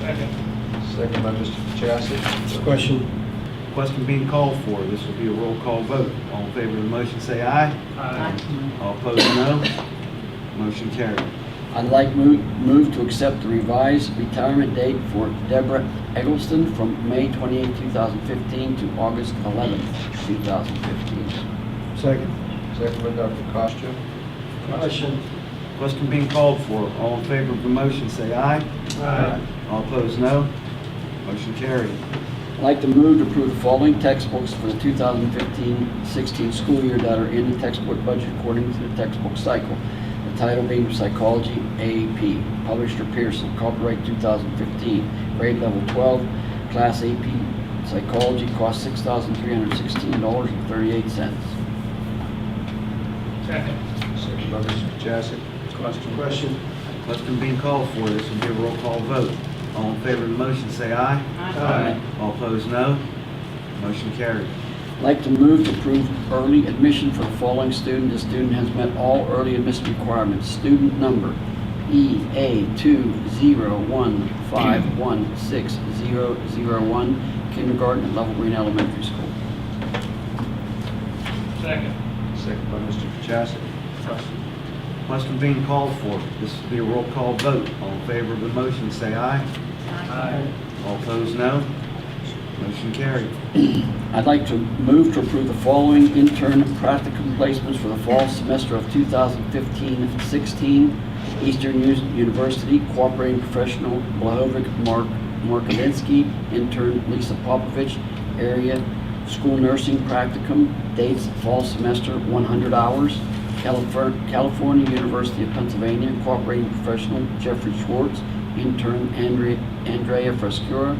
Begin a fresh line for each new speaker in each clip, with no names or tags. Second.
Second by Mr. Chassid.
Question.
Question being called for. This will be a roll call vote. All in favor of the motion, say aye. All opposed, no. Motion carried.
I'd like move, move to accept the revised retirement date for Deborah Eggleston from May 28, 2015 to August 11, 2015.
Second.
Second by Dr. Costa.
Question.
Question being called for. All in favor of the motion, say aye. All opposed, no. Motion carried.
I'd like to move to approve the following textbooks for the 2015-16 school year that are in the textbook budget according to the textbook cycle. The title being Psychology AP, publisher Pearson, copyright 2015, grade level 12, class AP Psychology, cost $6,316.38.
Second.
Second by Mr. Chassid.
Question.
Question being called for. This will be a roll call vote. All in favor of the motion, say aye. All opposed, no. Motion carried.
I'd like to move to approve early admission for the following student. The student has met all early admission requirements. Student number E EA2015160001, kindergarten at Level Green Elementary School.
Second.
Second by Mr. Chassid.
Question being called for. This will be a roll call vote. All in favor of the motion, say aye. All opposed, no. Motion carried.
I'd like to move to approve the following intern practicum placements for the fall semester of 2015-16. Eastern U- University Cooperating Professional Blahovic Mark Markovinsky, intern Lisa Popovich, area school nursing practicum, dates fall semester 100 hours. Califer- California University of Pennsylvania Cooperating Professional Jeffrey Schwartz, intern Andrea Andrea Frescura,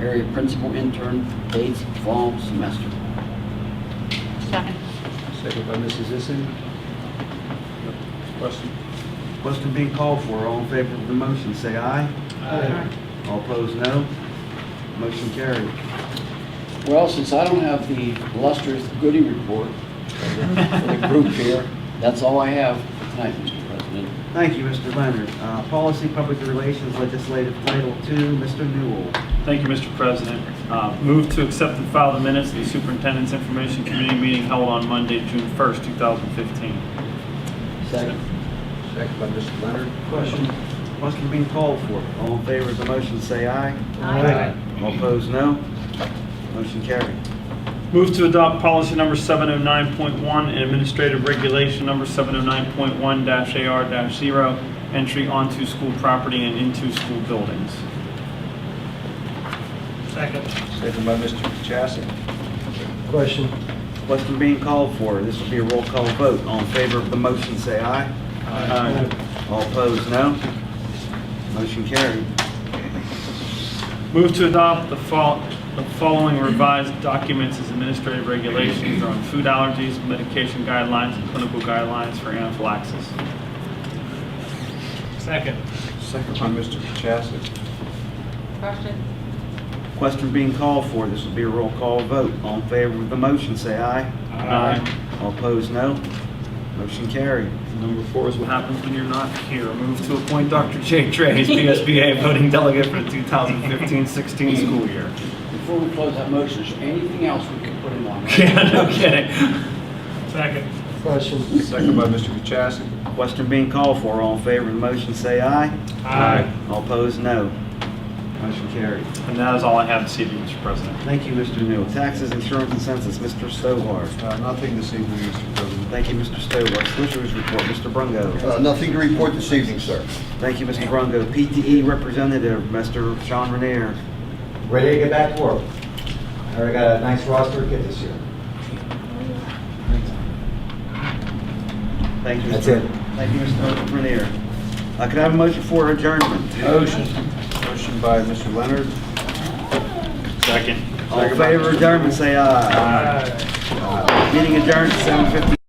area principal intern, dates fall semester.
Second.
Second by Mrs. Zissin. Question.
Question being called for. All in favor of the motion, say aye. All opposed, no. Motion carried.
Well, since I don't have the illustrious Goody report for the- for the group here, that's all I have for tonight, Mr. President.
Thank you, Mr. Leonard. Uh, Policy, Public Relations, Legislative Title Two, Mr. Newell.
Thank you, Mr. President. Uh, Move to accept and file the minutes of the Superintendent's Information Committee meeting held on Monday, June 1st, 2015.
Second.
Second by Mr. Leonard.
Question.
Question being called for. All in favor of the motion, say aye. All opposed, no. Motion carried.
Move to adopt policy number 709.1 and administrative regulation number 709.1-AR-0, entry onto school property and into school buildings.
Second.
Second by Mr. Chassid.
Question.
Question being called for. This will be a roll call vote. All in favor of the motion, say aye.
Uh,
Aye. All opposed, no. Motion carried.
Move to adopt the fol- the following revised documents as administrative regulations on food allergies, medication guidelines, and clinical guidelines for anaphylaxis.
Second.
Second by Mr. Chassid.
Question?
Question being called for. This will be a roll call vote. All in favor of the motion, say aye. All opposed, no. Motion carried.
Number four is what happens when you're not here. Move to appoint Dr. Jay Trey as PSBA voting delegate for the 2015-16 school year.
Before we close that motion, is there anything else we can put in on?
Yeah, no kidding.
Second.
Question.
Second by Mr. Chassid.
Question being called for. All in favor of the motion, say aye. All opposed, no. Motion carried.
And that is all I have this evening, Mr. President.
Thank you, Mr. Newell. Taxes, insurance, and census, Mr. Stovall.
Uh, Nothing this evening, Mr. President.
Thank you, Mr. Stovall. Solicitors report, Mr. Brungo.
Uh, Nothing to report this evening, sir.
Thank you, Mr. Brungo. PTE representative, Mr. Sean Renier.
ready to get back to work. I already got a nice roster to get this year.
Thank you.
That's
Mr.
it.
Thank you, Mr. Renier. Uh, Could I have a motion for adjournment?
Motion. Motion by Mr. Leonard.
Second.
All in favor of adjournment, say aye. Meeting adjourned at 7:50.